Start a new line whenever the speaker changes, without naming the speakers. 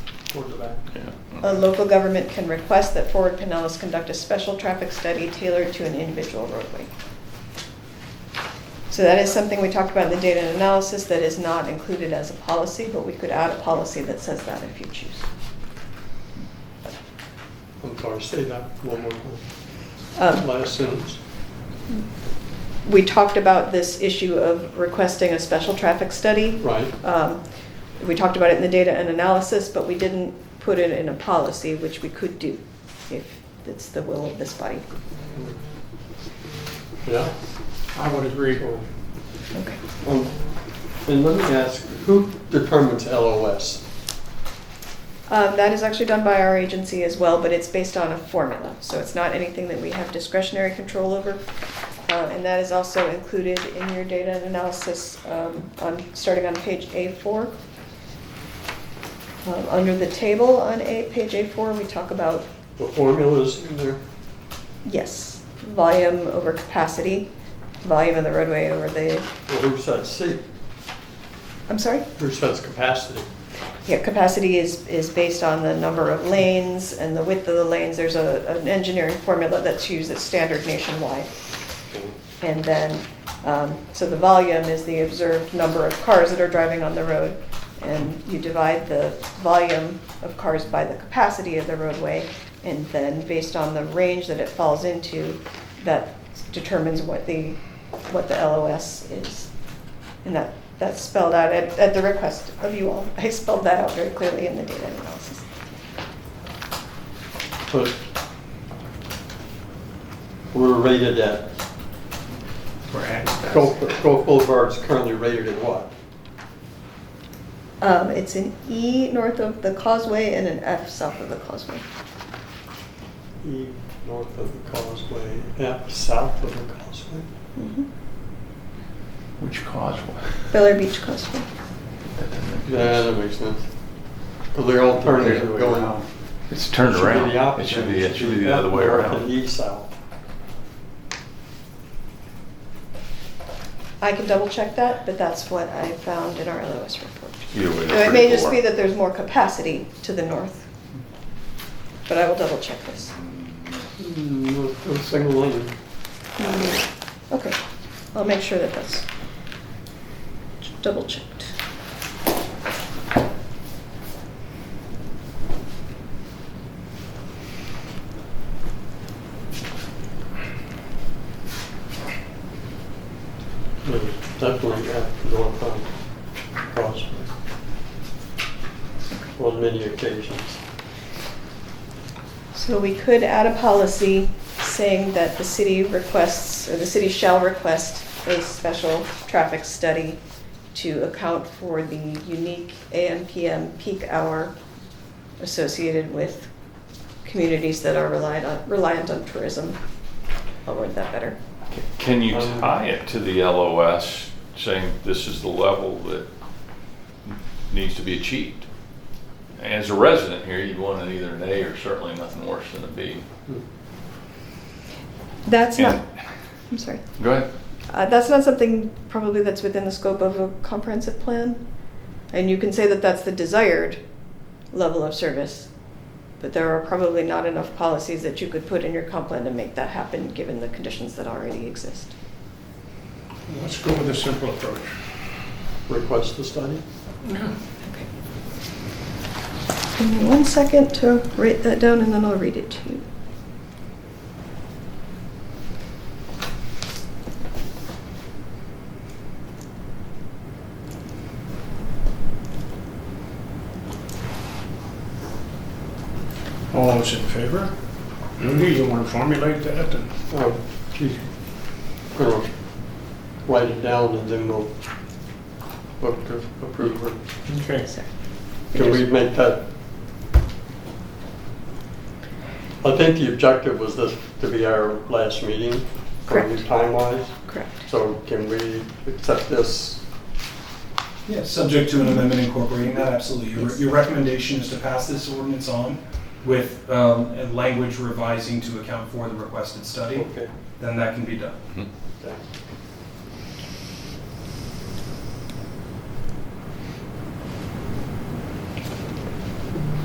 towards the back.
A local government can request that Forward Pinellas conduct a special traffic study tailored to an individual roadway. So that is something we talked about in the data and analysis that is not included as a policy, but we could add a policy that says that if you choose.
I'm sorry, say that one more time.
Um,
Last sentence.
We talked about this issue of requesting a special traffic study.
Right.
Um, We talked about it in the data and analysis, but we didn't put it in a policy, which we could do if it's the will of this body.
Yeah?
I would agree.
So,
Okay.
um, And let me ask, who determines LOS?
Um, That is actually done by our agency as well, but it's based on a formula. So it's not anything that we have discretionary control over. Uh, And that is also included in your data and analysis um, on, starting on page A4. Um, Under the table on A, page A4, we talk about,
The formulas in there?
yes, volume over capacity, volume of the roadway over the,
Well, who sets C?
I'm sorry?
Who sets capacity?
Yeah, capacity is, is based on the number of lanes and the width of the lanes. There's a, an engineering formula that's used that's standard nationwide. And then, um, so the volume is the observed number of cars that are driving on the road. And you divide the volume of cars by the capacity of the roadway. And then based on the range that it falls into, that determines what the, what the LOS is. And that, that's spelled out at, at the request of you all. I spelled that out very clearly in the data analysis.
But we're rated at,
for access.
Gulf Gulf Boulevard's currently rated at what?
Um, it's an E north of the causeway and an F south of the causeway.
E north of the causeway, F south of the causeway?
Mm-hmm.
Which causeway?
Miller Beach Causeway.
That doesn't make
Yeah, that
sense.
makes sense. Because they're all turning
The other
and
way
going.
around. It's turned
Should be
around.
the
It
opposite.
should be, it should be the other way
north and
around.
east south.
I can double check that, but that's what I found in our LOS report.
Either way,
Now,
they're
It may
pretty
just be
poor.
that there's more capacity to the north, but I will double check this.
Mm, with a Single lane.
Okay, I'll make sure that that's double checked.
No, Definitely at the north on Causeway. On many occasions.
So we could add a policy saying that the city requests, or the city shall request a special traffic study to account for the unique AM PM peak hour associated with communities that are reliant on, reliant on tourism. I'll word that better.
Can you tie it to the LOS, saying this is the level that needs to be achieved? As a resident here, you'd want it either an A or certainly nothing worse than a B.
That's not,
And-
I'm sorry,
Go ahead.
uh, that's not something probably that's within the scope of a comprehensive plan. And you can say that that's the desired level of service, but there are probably not enough policies that you could put in your comp plan to make that happen, given the conditions that already exist.
Let's go with a simple approach.
Request the study?
Okay. Give me one second to write that down and then I'll read it to you.
All those in favor? Rudy, you want to formulate that and
Oh, geez. Gonna write it down and then we'll vote to approve it.
Okay.
Yes, sir.
Can we make that? I think the objective was this to be our last meeting,
Correct.
time wise.
Correct.
So can we accept this?
Yeah, subject to an amendment incorporating that, absolutely. Your-
Yes.
Your recommendation is to pass this ordinance on with um, a language revising to account for the requested study,
Okay.
then that can be done.
yeah.